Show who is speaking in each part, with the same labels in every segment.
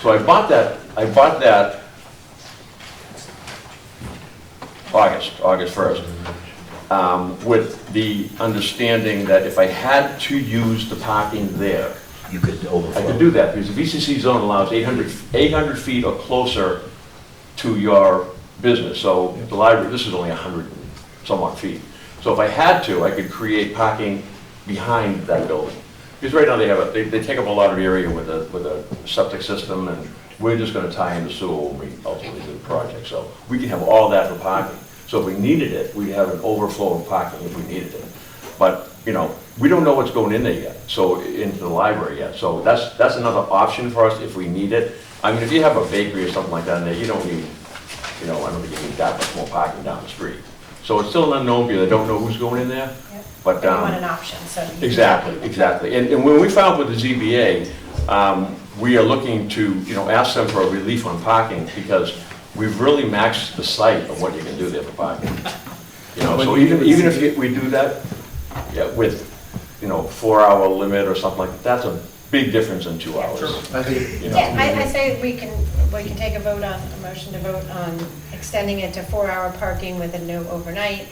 Speaker 1: So I bought that, I bought that August, August 1st, um, with the understanding that if I had to use the parking there,
Speaker 2: You could overflow.
Speaker 1: I could do that, because the VCC zone allows 800, 800 feet or closer to your business, so the library, this is only 100 and some odd feet. So if I had to, I could create parking behind that building. Because right now they have a, they, they take up a lot of area with a, with a septic system, and we're just gonna tie in the sewer when we ultimately do the project, so we can have all that for parking. So if we needed it, we'd have an overflow of parking if we needed it. But, you know, we don't know what's going in there yet, so, into the library yet, so that's, that's another option for us if we need it. I mean, if you have a bakery or something like that in there, you don't need, you know, I don't think you need that much more parking down the street. So it's still an unknown, because I don't know who's going in there,
Speaker 3: Yep.
Speaker 1: but,
Speaker 3: You
Speaker 1: um.
Speaker 3: want an option, so. you-
Speaker 1: Exactly, exactly. And, and when we filed with the ZBA, um, we are looking to, you know, ask them for a relief on parking because we've really maxed the site of what you can do there for parking. You know, so even, even if you- we do that, yeah, with, you know, four-hour limit or something like, that, that's a big difference in two hours.
Speaker 4: I think,
Speaker 1: you know.
Speaker 3: Yeah, I, I say we can, we can take a vote on, a motion to vote on extending it to four-hour parking with a no overnight.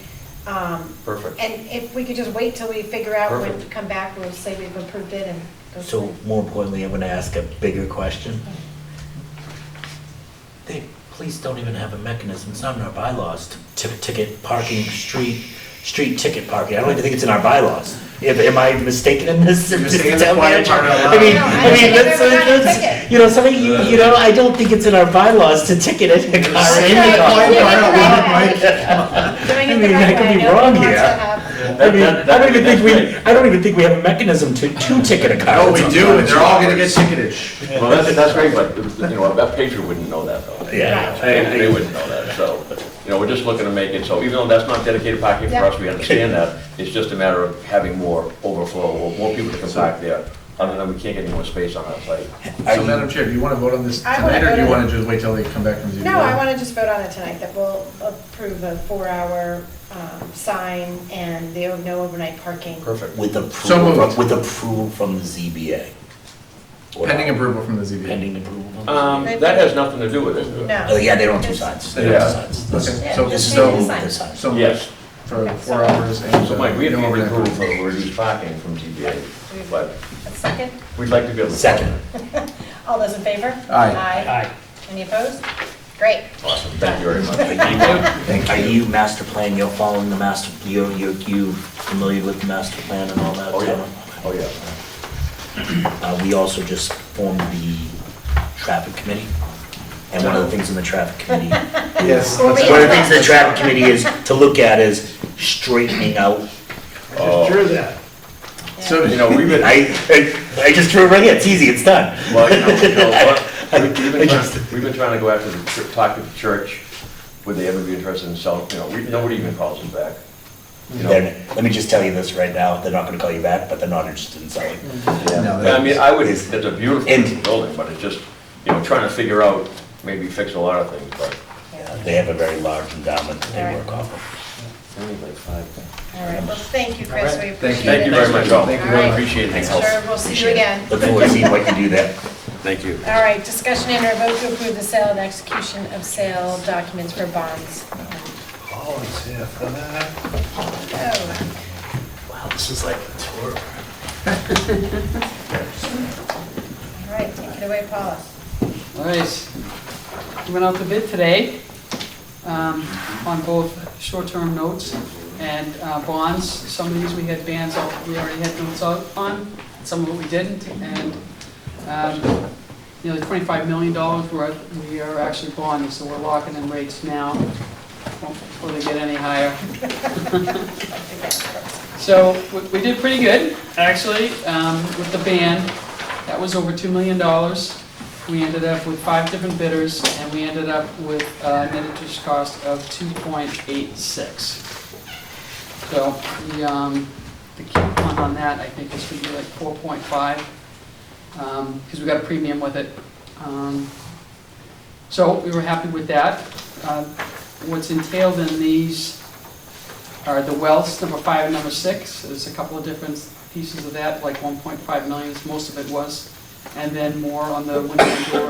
Speaker 3: Um,
Speaker 1: Perfect.
Speaker 3: And if we could just wait till we figure out when to
Speaker 1: Perfect.
Speaker 3: come back, we'll say we've approved it and. go
Speaker 2: So
Speaker 3: from
Speaker 2: more importantly, I'm gonna ask a bigger question. They, police don't even have a mechanism, it's not in our bylaws to, to ticket parking, street, street ticket parking. I don't even think it's in our bylaws. Am- Am I mistaken in this?
Speaker 4: You're mistaken in the
Speaker 2: Town
Speaker 4: quiet
Speaker 2: manager?
Speaker 4: part out
Speaker 2: I mean,
Speaker 3: loud.
Speaker 2: I mean,
Speaker 3: No, I don't think I've
Speaker 2: that's,
Speaker 3: ever gotten a
Speaker 2: that's,
Speaker 3: ticket.
Speaker 2: you know, something, you, you know, I don't think it's in our bylaws to ticket a car or
Speaker 3: That's
Speaker 2: any
Speaker 3: right.
Speaker 2: car.
Speaker 3: Yeah. there.
Speaker 2: I
Speaker 3: Doing it the
Speaker 2: mean,
Speaker 3: right
Speaker 2: I could
Speaker 3: way.
Speaker 2: be
Speaker 3: Nobody
Speaker 2: wrong
Speaker 3: wants to
Speaker 2: here.
Speaker 3: have-
Speaker 2: I mean, I don't even think we, I don't even think we have a mechanism to, to ticket a car.
Speaker 4: no, we do, and they're all gonna get ticketed.
Speaker 1: Well, that's, that's great, but, you know, a patron wouldn't know that though.
Speaker 2: Yeah.
Speaker 1: They they wouldn't know that, so, you know, we're just looking to make it, so even though that's not dedicated parking for us, we understand that, it's just a matter of having more overflow, or more people to come back there, other than we can't get any more space on that site.
Speaker 4: So Madam Chair, do you wanna vote on this
Speaker 3: I wanna
Speaker 4: tonight, or do you
Speaker 3: vote on-
Speaker 4: wanna just wait till they come back from ZBA?
Speaker 3: No, I want to just vote on it tonight, that we'll approve a four-hour um, sign and the no overnight parking.
Speaker 1: Perfect.
Speaker 2: With
Speaker 4: So
Speaker 2: approval,
Speaker 4: moved.
Speaker 2: from- with approval from the ZBA. Or
Speaker 4: Pending
Speaker 2: not?
Speaker 4: approval from the ZBA.
Speaker 2: Pending approval. from the-
Speaker 1: Um, that has nothing to do with it.
Speaker 3: No.
Speaker 2: Oh, yeah, they don't do signs. They don't
Speaker 1: Yeah.
Speaker 2: do signs. This
Speaker 4: Okay,
Speaker 3: Yeah,
Speaker 4: so,
Speaker 2: this is
Speaker 3: they
Speaker 2: the
Speaker 3: do
Speaker 2: move
Speaker 4: so,
Speaker 2: of the
Speaker 3: signs.
Speaker 2: signs.
Speaker 4: so
Speaker 1: Yes,
Speaker 4: for four hours and.
Speaker 1: so Mike, we have
Speaker 4: uh,
Speaker 1: to
Speaker 4: no
Speaker 1: get
Speaker 4: overnight.
Speaker 1: approval for reduced parking from ZBA, but
Speaker 3: A second?
Speaker 1: we'd like to be able to.
Speaker 2: Second.
Speaker 3: All those in favor?
Speaker 4: Aye.
Speaker 3: Aye. Any opposed? Great.
Speaker 1: Awesome, thank you very much.
Speaker 2: Are you master plan, you're following the master, you're, you're, you familiar with the master plan and all that?
Speaker 1: Oh, yeah,
Speaker 2: Tara?
Speaker 1: oh, yeah.
Speaker 2: Uh, we also just formed the traffic committee. And one of the things in the traffic committee, one
Speaker 4: Yes.
Speaker 1: Oh.
Speaker 3: Well,
Speaker 4: that's
Speaker 3: we-
Speaker 2: of the things the traffic committee is to look at is straightening out.
Speaker 1: Oh,
Speaker 4: right. So,
Speaker 1: You know, we've been.
Speaker 2: I, I- I just drew it right here, it's easy, it's done.
Speaker 1: Well, you know, you know, what? we've been trying, we've been trying to go after the, chur- talk to the church, would they ever be interested in selling, you know, we, nobody even calls us back. You know,
Speaker 2: They're- Let me just tell you this right now, they're not gonna call you back, but they're not interested in selling.
Speaker 1: Mm-hmm.
Speaker 4: No,
Speaker 1: yeah. I mean, I would,
Speaker 2: that's-
Speaker 1: it's a beautiful
Speaker 2: And-
Speaker 1: building, but it's just, you know, trying to figure out, maybe fix a lot of things, but.
Speaker 2: They have a very large endowment that they work off of.
Speaker 3: All right, well, thank you, Chris, we
Speaker 4: Thank you.
Speaker 3: appreciate it.
Speaker 1: Thank you very much, all.
Speaker 4: Thank you.
Speaker 1: I Appreciate it.
Speaker 3: All right. Sure, we'll see you again.
Speaker 2: Look forward to seeing what you do there.
Speaker 5: Thank you.
Speaker 3: All right, discussion and or vote to approve the sale and execution of sale documents for bonds. Oh,
Speaker 2: Wow, this is like a tour.
Speaker 3: All right, take it away, Paula.
Speaker 6: All right, we went out to bid today um, on both short-term notes and uh, bonds. Some of these we had bands out, we already had notes out on, some of it we didn't, and um, nearly $25 million worth, we are actually bonding, so we're locking in rates now before they get any higher. So we- we did pretty good, actually, um, with the band. That was over $2 million. We ended up with five different bidders, and we ended up with a net interest cost of 2.86. So the um, the coupon on that, I think, is going to be like 4.5, because um, we got a premium with it. Um, So we were happy with that. Uh, What's entailed in these are the wells, number five and number six. There's a couple of different pieces of that, like 1.5 million, most of it was. And then more on the window and door